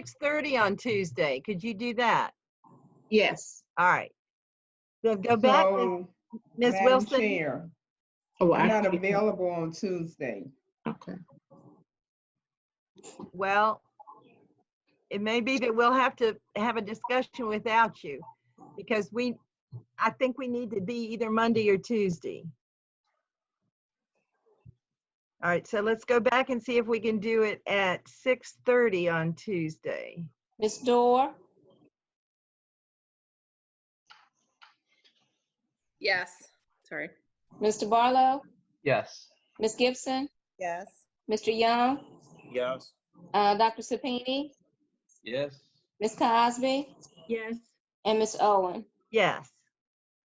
6:30 on Tuesday. Could you do that? Yes. All right. So go back, Ms. So, Ms. Madam Wilson. Chair, Oh, I'm I, not available on Tuesday. okay. Well, it may be that we'll have to have a discussion without you because we, I think we need to be either Monday or Tuesday. All right, so let's go back and see if we can do it at 6:30 on Tuesday. Ms. Dorr, Yes, sorry. Mr. Barlow, Yes. Ms. Gibson, Yes. Mr. Young, Yes. uh, Dr. Sapini, Yes. Ms. Cosby, Yes. and Ms. Owen. Yes.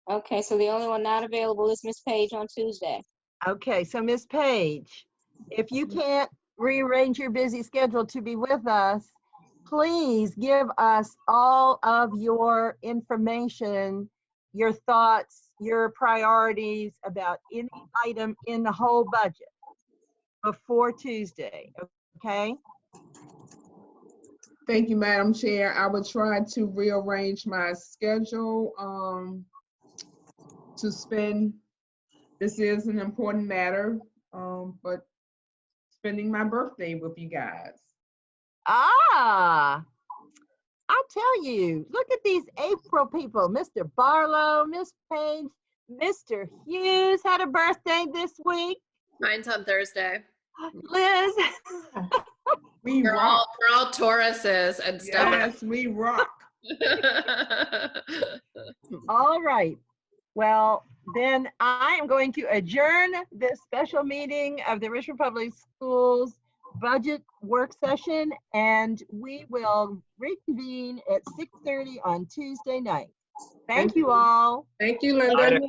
Okay, so the only one not available is Ms. Page on Tuesday. Okay, so Ms. Page, if you can't rearrange your busy schedule to be with us, please give us all of your information, your thoughts, your priorities about any item in the whole budget before Tuesday, okay? Thank you, Madam Chair. I would try to rearrange my schedule, um, to spend, this is an important matter, um, but spending my birthday with you guys. Ah, I tell you, look at these April people, Mr. Barlow, Miss Page, Mr. Hughes had a birthday this week. Mine's on Thursday. Liz, We We're all rock. we're all Tauruses and stuff. Yes, we rock. all right. Well, then I am going to adjourn this special meeting of the Richmond Public Schools Budget Work Session, and we will reconvene at 6:30 on Tuesday night. Thank you all. Thank you, Linda.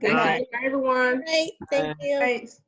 Got Thank you, everyone. Right, thank you. Thanks.